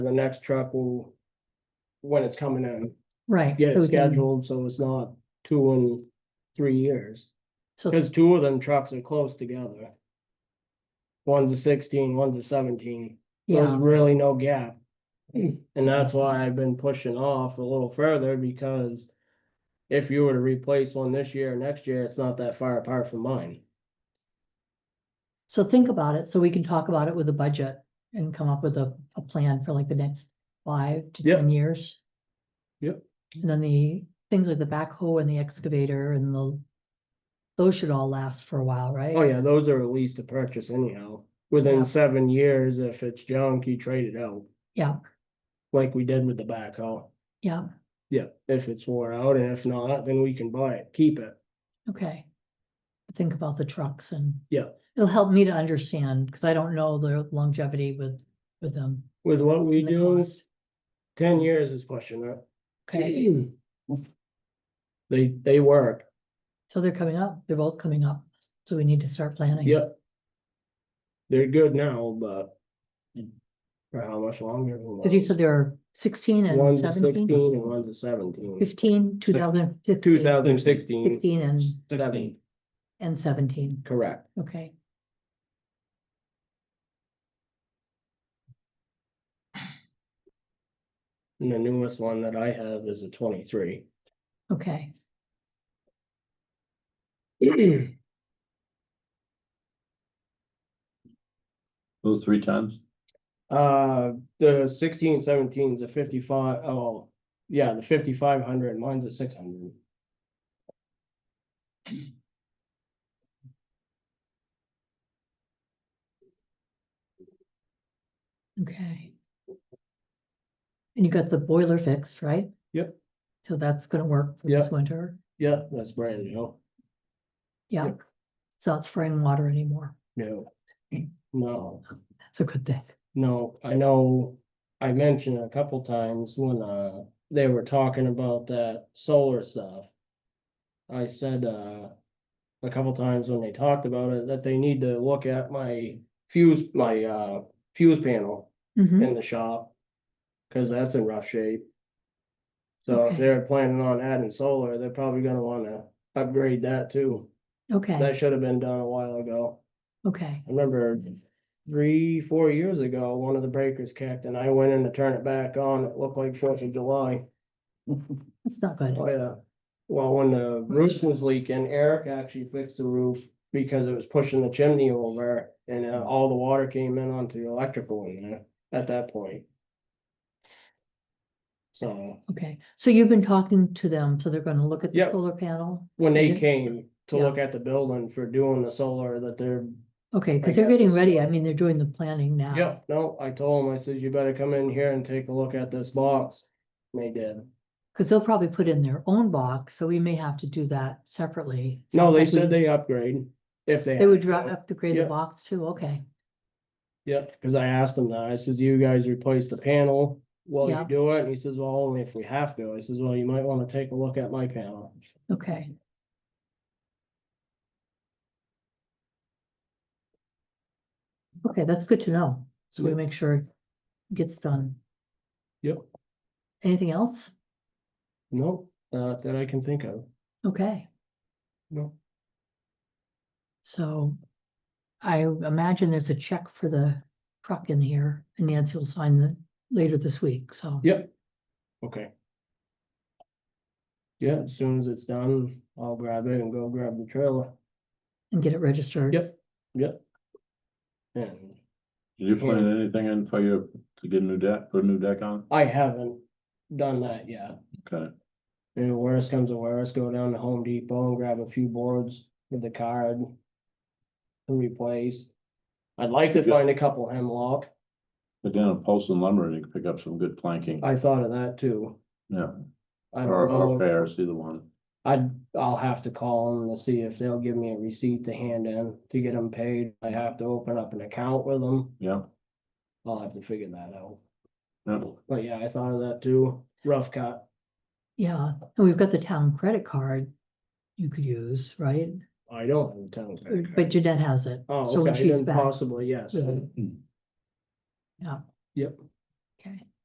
the next truck will, when it's coming in, Right. get so it we can- scheduled, so it's not two and three years. So, Cause two of them trucks are close together. One's a sixteen, one's a seventeen, there's yeah, really no gap. And that's why I've been pushing off a little further, because if you were to replace one this year or next year, it's not that far apart from mine. so think about it, so we can talk about it with the budget and come up with a, a plan for like the next five to Yep. ten years. Yep. And then the things like the backhoe and the excavator and the, those should all last for a while, right? Oh, yeah, those are at least to purchase anyhow, Yeah. within seven years, if it's junk, you trade it out. Yeah, like we did with the backhoe. yeah, Yeah. If it's wore out, and if not, then we can buy it, keep it. okay. Think about the trucks and. Yeah. It'll help me to understand, because I don't know the longevity with, with them. With what we and the do, cost. ten years is pushing it. Okay, They, they work, so they're coming up, they're both coming up, so we need to start planning. yep. They're good now, but for how much longer? who Cause you knows? said there are sixteen and One's a seventeen, sixteen and one's a seventeen. fifteen, two thousand Two fifteen, thousand sixteen, fifteen and, seventeen, and seventeen, correct. okay. And the newest one that I have is a twenty-three. Okay, Those three times? Uh, the sixteen, seventeen is a fifty-five, oh, yeah, the fifty-five hundred, mine's a six hundred. okay. And you got the boiler fixed, right? Yep. So that's gonna work for this Yep. winter, Yeah, that's brand new. yeah. Yep. It's not spraying water anymore, No. No, that's a good thing, no, I know, I mentioned a couple times when, uh, they were talking about that solar stuff. I said, uh, a couple times when they talked about it, that they need to look at my fuse, my, uh, fuse panel. Mhm. in the shop. Cause that's in rough shape. So Okay. if they're planning on adding solar, they're probably gonna wanna upgrade that too. okay, That should have been done a while ago. okay, I remember three, four years ago, one of the breakers kicked and I went in to turn it back on. It looked like Fourth of July. that's not good, Oh, yeah. Well, when the roof was leaking, Eric actually fixed the roof because it was pushing the chimney over and uh, all the water came in onto the electrical in there at that point. So okay, so you've been talking to them, so they're gonna look at the Yep. solar panel? when they Mhm. came to look at the building for doing the solar that they're, Okay, I because they're guess getting it's- ready, I mean, they're doing the planning now. yeah, no, I told them, I says, you better come in here and take a look at this box. And they did. Because they'll probably put in their own box, so we may have to do that separately. So No, I they think we- said they upgrade if they. They would had dri- to. upgrade the Yeah. box too, okay, Yeah, cause I asked him that, I says, "Do you guys replace the panel while Yeah. you do it, and he says, well, only if we have to, I says, well, you might wanna take a look at my panel. okay. Okay, that's good to know, so we Yeah. make sure it gets done. Yep. Anything else? No, not that I can think of, Okay, no, so I imagine there's a check for the truck in here, and Nancy will sign the later this week, so. Yeah. okay. Yeah, as soon as it's done, I'll grab it and go grab the trailer, And get it registered. yep, yep. And Did you Yeah. plan anything in for you to get a new deck, put a new deck on? I haven't done that yet, Okay, and worst comes to worst, go down to Home Depot and grab a few boards with the card. To replace. I'd like to Yeah. find a couple hemlock. but down at Paulson Lumber, you can pick up some good planking. I thought of that too. Yeah, I or, don't or know. fair, see the one. I, I'll have to call them to see if they'll give me a receipt to hand in to get them paid. I have to open up an account with them. Yeah, I'll have to figure that out. yeah. But yeah, I thought of that too. Rough cut. Yeah, and we've got the town credit card you could use, right? I don't have a town. credit But card. Jeanette has it. Oh, So when okay, she's then back, possibly, yes. Yeah. Yeah. Yep.